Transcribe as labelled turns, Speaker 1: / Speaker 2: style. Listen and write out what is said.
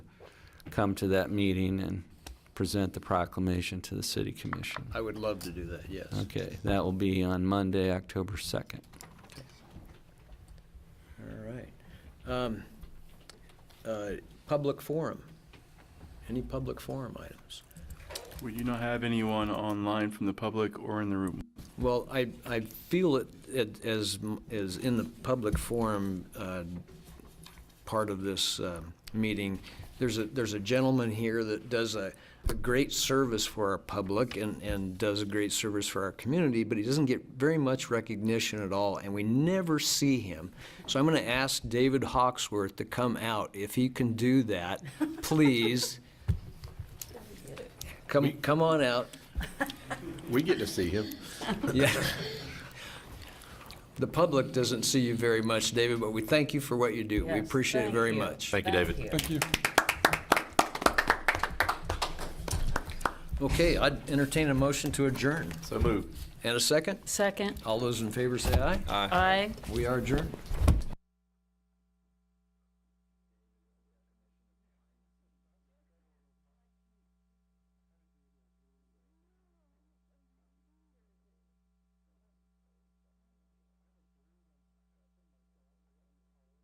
Speaker 1: come to that meeting and present the proclamation to the city commission.
Speaker 2: I would love to do that, yes.
Speaker 1: Okay, that will be on Monday, October 2nd.
Speaker 2: All right. Um, uh, Public forum. Any public forum items?
Speaker 3: We do not have anyone online from the public or in the room.
Speaker 2: Well, I, I feel it, it as, m- as in the public forum uh, part of this um, meeting, there's a, there's a gentleman here that does a, a great service for our public and, and does a great service for our community, but he doesn't get very much recognition at all, and we never see him. So I'm going to ask David Hawksworth to come out. If he can do that, please. Come, come on out.
Speaker 4: We get to see him.
Speaker 2: Yeah. The public doesn't see you very much, David, but we thank you for what you do. We
Speaker 5: Yes,
Speaker 2: appreciate it
Speaker 5: thank
Speaker 2: very
Speaker 5: you.
Speaker 2: much.
Speaker 4: Thank you, David.
Speaker 2: Okay, I'd entertain a motion to adjourn.
Speaker 4: So moved.
Speaker 2: And a second?
Speaker 5: Second.
Speaker 2: All those in favor say aye.
Speaker 5: Aye.
Speaker 2: We are adjourned.